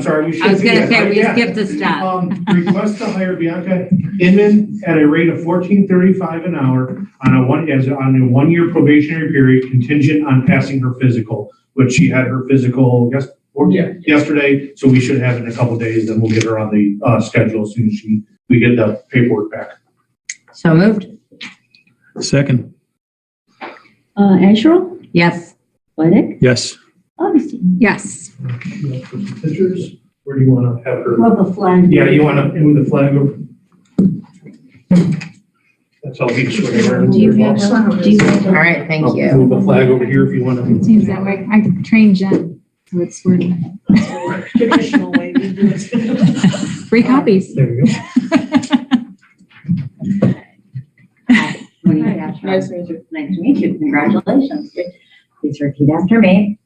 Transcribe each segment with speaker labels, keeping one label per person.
Speaker 1: I'm sorry, we should.
Speaker 2: I was
Speaker 1: do
Speaker 2: gonna
Speaker 1: that,
Speaker 2: say,
Speaker 1: right?
Speaker 2: we
Speaker 1: Yeah.
Speaker 2: skipped a step.
Speaker 1: Um, request to hire Bianca Inman at a rate of fourteen thirty-five an hour on a one, as on a one-year probationary period contingent on passing her physical, which she had her physical yes, or
Speaker 3: Yeah.
Speaker 1: yesterday, so we should have it in a couple days, then we'll get her on the, uh, schedule as soon as she, we get the paperwork back.
Speaker 2: So moved?
Speaker 4: Second,
Speaker 5: Uh, Asherle,
Speaker 2: Yes.
Speaker 5: Sweattick,
Speaker 4: yes.
Speaker 5: Augustine.
Speaker 2: Yes.
Speaker 1: Pictures, where do you wanna have her?
Speaker 5: Rub a flag.
Speaker 1: Yeah, you wanna move the flag over? That's all we just.
Speaker 5: Do you have- do you have-
Speaker 2: All right, thank
Speaker 1: I'll
Speaker 2: you.
Speaker 1: Move the flag over here if you wanna.
Speaker 6: Seems that way. I trained Jen, so it's sort of
Speaker 7: traditional way we do it.
Speaker 6: free copies.
Speaker 1: There you go.
Speaker 5: Tony Asherle.
Speaker 7: Nice to meet you.
Speaker 5: Nice to meet you. Congratulations. Please repeat after me.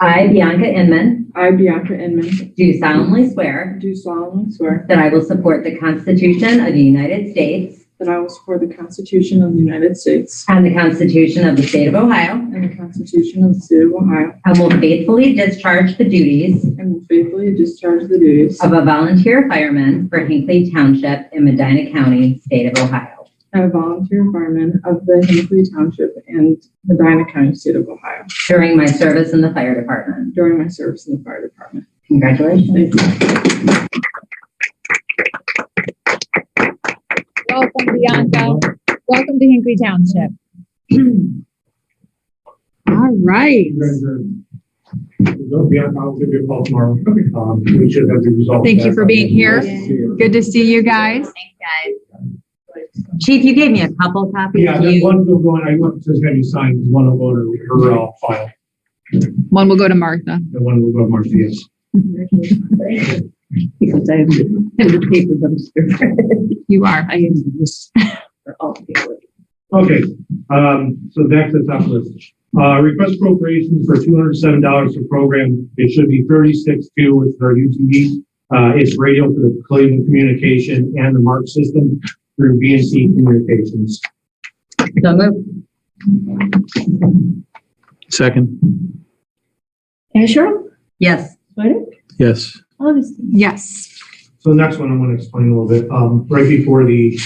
Speaker 5: I, Bianca Inman,
Speaker 7: I, Bianca Inman,
Speaker 5: do solemnly swear
Speaker 7: do solemnly swear
Speaker 5: that I will support the Constitution of the United States
Speaker 7: that I will support the Constitution of the United States
Speaker 5: and the Constitution of the State of Ohio,
Speaker 7: and the Constitution of the State of Ohio,
Speaker 5: and will faithfully discharge the duties
Speaker 7: and will faithfully discharge the duties
Speaker 5: of a volunteer fireman for Hinckley Township in Medina County, State of Ohio,
Speaker 7: of a volunteer fireman of the Hinckley Township and Medina County, State of Ohio,
Speaker 5: during my service in the fire department.
Speaker 7: during my service in the fire department.
Speaker 5: Congratulations.
Speaker 7: Thank you.
Speaker 6: Welcome, Bianca. Welcome to Hinkley Township. All right.
Speaker 1: Don't be on, I'll give you a call tomorrow. Um, we should have the results.
Speaker 6: Thank you for being here.
Speaker 1: Good.
Speaker 6: Good to see you guys.
Speaker 5: Chief, you gave me a couple copies.
Speaker 1: Yeah,
Speaker 5: Do
Speaker 1: that
Speaker 5: you-
Speaker 1: one will go, in- I want to have you sign, because one will go to her uh, file,
Speaker 6: One will go to Martha.
Speaker 1: the one will go to Marcia's.
Speaker 5: Because I have the paper dumpster.
Speaker 6: You are.
Speaker 5: I am just for all people.
Speaker 1: Okay, um, so back to the top list. Uh, request appropriations for two hundred seven dollars per program. It should be thirty-six two with our UTV. Uh, it's radio for the Cleveland Communication and the Mark System through BNC Communications.
Speaker 5: So moved.
Speaker 4: Second,
Speaker 5: Asher? Yes. Sweattick?
Speaker 4: yes.
Speaker 5: Augustine?
Speaker 6: Yes.
Speaker 1: So the next one I want to explain a little bit. Um, right before the,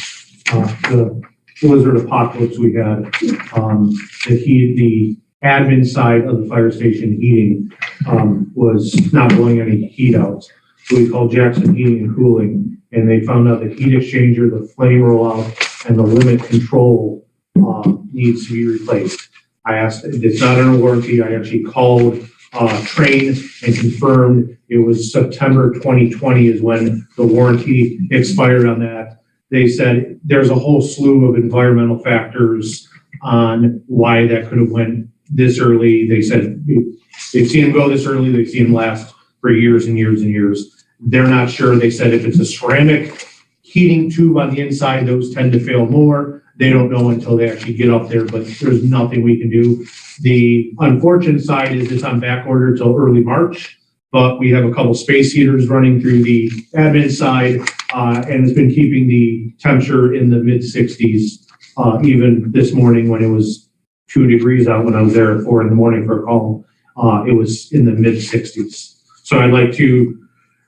Speaker 1: uh, the blizzard apocalypse we had, um, the heat, the admin side of the fire station heating, um, was not blowing any heat out. So we called Jackson Heating and Cooling, and they found out the heat exchanger, the flame rollout, and the limit control, um, needs to be replaced. I asked, it's not under warranty. I actually called, uh, Train and confirmed it was September 2020 is when the warranty expired on that. They said there's a whole slew of environmental factors on why that could have went this early. They said they've seen them go this early, they've seen them last for years and years and years. They're not sure. They said if it's a ceramic heating tube on the inside, those tend to fail more. They don't know until they actually get up there, but there's nothing we can do. The unfortunate side is it's on back order till early March but we have a couple space heaters running through the admin side, uh, and it's been keeping the temperature in the mid sixties, uh, even this morning when it was two degrees out when I was there at four in the morning for a call, uh, it was in the mid sixties. So I'd like to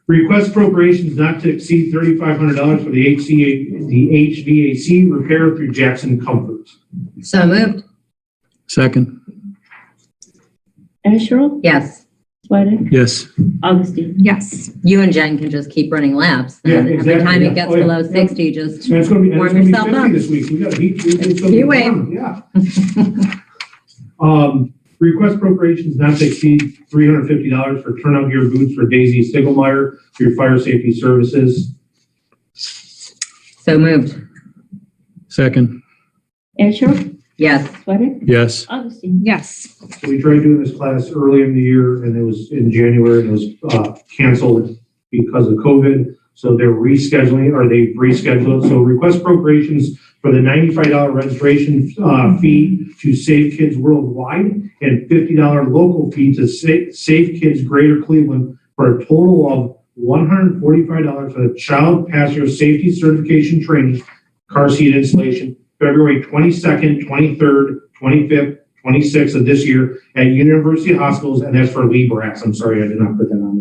Speaker 1: request appropriations not to exceed thirty-five hundred dollars for the HCA, the HVAC repair through Jackson Comfort.
Speaker 5: So moved.
Speaker 4: Second,
Speaker 5: Asher? Yes. Sweattick?
Speaker 4: yes.
Speaker 5: Augustine?
Speaker 6: Yes.
Speaker 5: You and Jen can just keep running laps.
Speaker 1: Yeah,
Speaker 5: and Every
Speaker 1: exactly,
Speaker 5: time
Speaker 1: yeah.
Speaker 5: it gets
Speaker 1: Oh, yeah,
Speaker 5: below
Speaker 1: yeah.
Speaker 5: 60, just,
Speaker 1: And it's gonna be, and it's
Speaker 5: Warm
Speaker 1: gonna be
Speaker 5: yourself
Speaker 1: fifty
Speaker 5: up.
Speaker 1: this week, we got heat, it's gonna be
Speaker 5: You wait.
Speaker 1: warm, yeah. Um, request appropriations not to exceed three hundred fifty dollars for turnout gear boots for Daisy Stiglmeyer through Fire Safety Services.
Speaker 5: so moved.
Speaker 4: Second,
Speaker 5: Asher? Yes. Sweattick?
Speaker 4: yes.
Speaker 5: Augustine?
Speaker 6: Yes.
Speaker 1: So we tried doing this class early in the year and it was in January and it was, uh, canceled because of COVID. So they're rescheduling, or they rescheduled, so request appropriations for the ninety-five dollar registration, uh, fee to Save Kids Worldwide and fifty dollar local fee to Sa- Save Kids Greater Cleveland for a total of one hundred and forty-five dollars for the Child Passenger Safety Certification Training, car seat installation, February twenty-second, twenty-third, twenty-fifth, twenty-sixth of this year at University Hospitals, and that's for Lee Brass. I'm sorry, I did not put that on